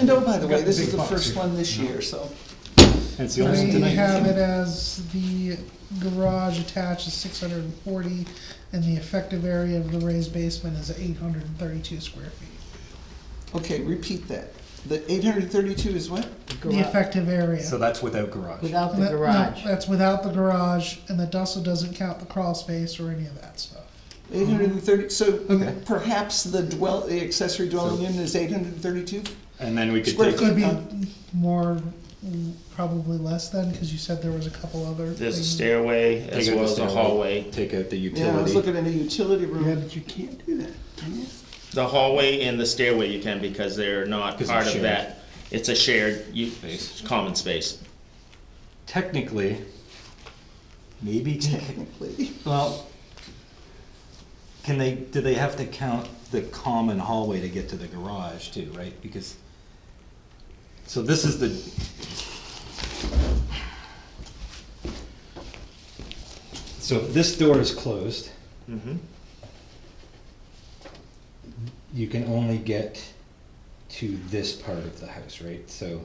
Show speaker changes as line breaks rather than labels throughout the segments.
And oh, by the way,
Got
this
big
is the
bucks
first
here.
one this year, so.
And it's the only one
We
tonight.
have it as the garage attached is six hundred and forty, and the effective area of the raised basement is eight hundred and thirty-two square feet.
Okay, repeat that. The eight hundred thirty-two is what?
The effective area.
So that's without garage.
Without the
That- no,
garage.
That's without the garage, and that also doesn't count the crawl space or any of that stuff.
Eight hundred and thirty, so
Okay.
perhaps the dwell, the accessory dwelling
So-
unit is eight hundred and thirty-two?
And then we could
Square
take,
foot.
Could be
Um,
more, mm, probably less than, because you said there was a couple other.
There's a
things.
stairway as
Take out the
well as a
stairway.
hallway.
take out the
Yeah, I was
utility.
looking at a utility
Yeah,
room.
but you can't do that, can you?
The hallway and the stairway you can because they're not
'Cause
part
it's
of
shared.
that. It's a shared, u-
Space.
common space.
Technically, maybe,
Technically,
well, can they, do they have to count the common hallway to get to the garage too, right? Because, so this is the, so if this door is closed,
Mm-hmm.
you can only get to this part of the house, right? So,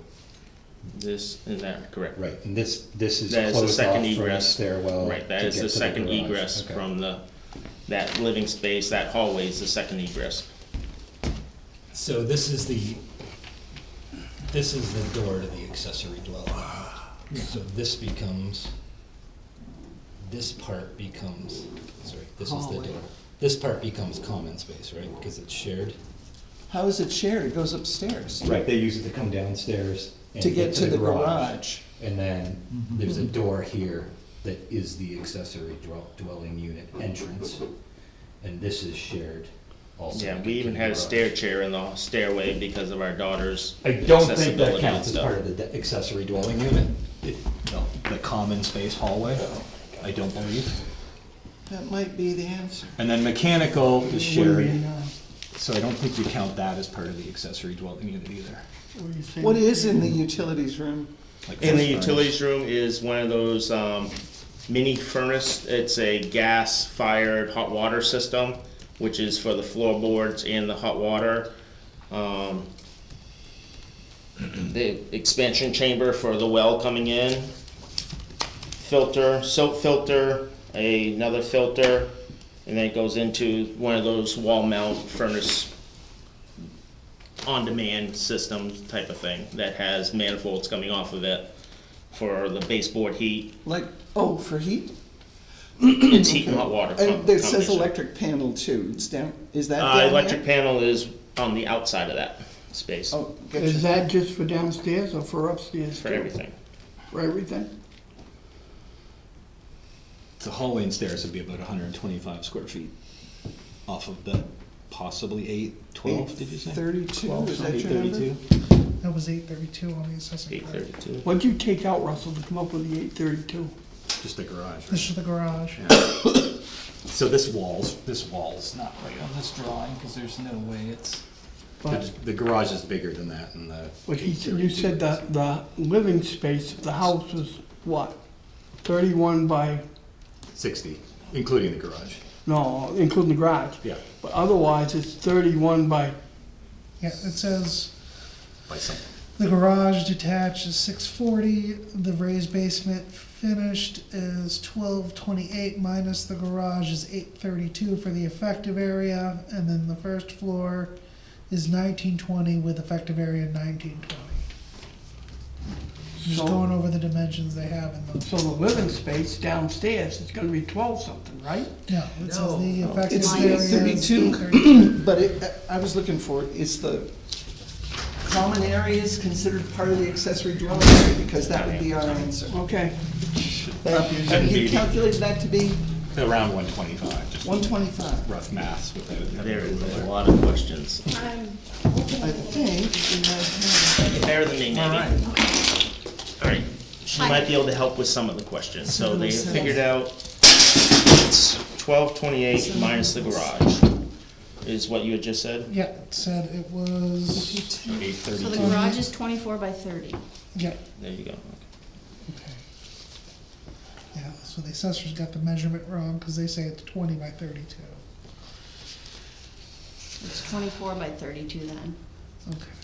This and that, correct.
right, and this, this is
That is the
closed off
second
from the
egress.
stairwell.
Right, that
Oh, to
is
get
the
to
second
garage.
egress
Okay.
from the, that living space, that hallway is the second egress.
So this is the, this is the door to the accessory dwelling. So this becomes, this part becomes, sorry, this is the
Hallway.
door. This part becomes common space, right, because it's shared?
how is it shared? It goes upstairs
Right, they use it to come downstairs and
to get to the garage.
And then there's a door here that is the accessory dwell- dwelling unit entrance, and this is shared also.
Yeah,
to
we
get
even
to the
had a
garage.
stair chair in the stairway because of our daughter's
I don't think
accessibility
that
and
counts as
stuff.
part of the de- accessory dwelling unit. It- No, the common space hallway, I don't believe.
That might be the answer.
And then mechanical is
What do you
shared,
mean, uh,
so I don't think you count that as part of the accessory dwelling unit either.
what do you say?
What is in the utilities room?
Like
In the
furnace.
utilities room is one of those um, mini furnace. It's a gas fired hot water system, which is for the floorboards and the hot water. Um, the expansion chamber for the well coming in, filter, soap filter, a- another filter, and then it goes into one of those wall mount furnace on-demand system type of thing that has manifolds coming off of it for the baseboard heat.
Like, oh, for heat?
It's heat and hot water. com-
And it says
combination.
electric panel too. It's down, is that down
Uh,
there?
electric panel is on the outside of that space
Oh,
Is
gotcha.
that just for downstairs or for upstairs?
for
too?
everything.
For everything?
The hallway and stairs would be about hundred and twenty-five square feet off of the possibly eight, twelve, did you say?
Thirty-two, is that
Eight
your number?
thirty-two?
That was eight thirty-two on the assessment.
Eight
card.
thirty-two.
What'd you take out, Russell, to come up with the eight thirty-two?
Just the garage, right?
This is the garage.
So this wall's, this wall's not right on this Oh, drawing, because there's no way it's. The
But,
the garage is bigger than that and the.
but he, said- you
832
said that the living space of the house was what? Thirty-one by,
Sixty, including the garage,
no, including the garage.
yeah,
But otherwise, it's thirty-one by,
Yeah, it says
by something.
the garage detached is six forty, the raised basement finished is twelve twenty-eight minus the garage is eight thirty-two for the effective area, and then the first floor is nineteen twenty with effective area nineteen twenty. Just
So-
going over the dimensions they have in those.
so the living space downstairs is gonna be twelve something, right?
No, it says the effective
It's
area
eight
is
thirty-two, but it, I was looking for, is the common areas considered part of the accessory dwelling area? Because that would be our answer.
Okay,
Thank you.
Shouldn't be
You
the-
calculated that to be
Around one twenty-five, just
one twenty-five.
rough maths without. having
There
a
is a
ruler.
lot of questions.
I think,
Bear with me, maybe.
All right.
All right, she might be able to help with some of the questions. So they figured out it's twelve twenty-eight minus the garage is what you had just said.
Yeah, it said it was,
Eight thirty.
So the garage is twenty-four by thirty.
yeah,
There you go.
okay. Yeah, so the assessors got the measurement wrong, cause they say it's twenty by thirty-two,
It's twenty-four by thirty-two then.
okay.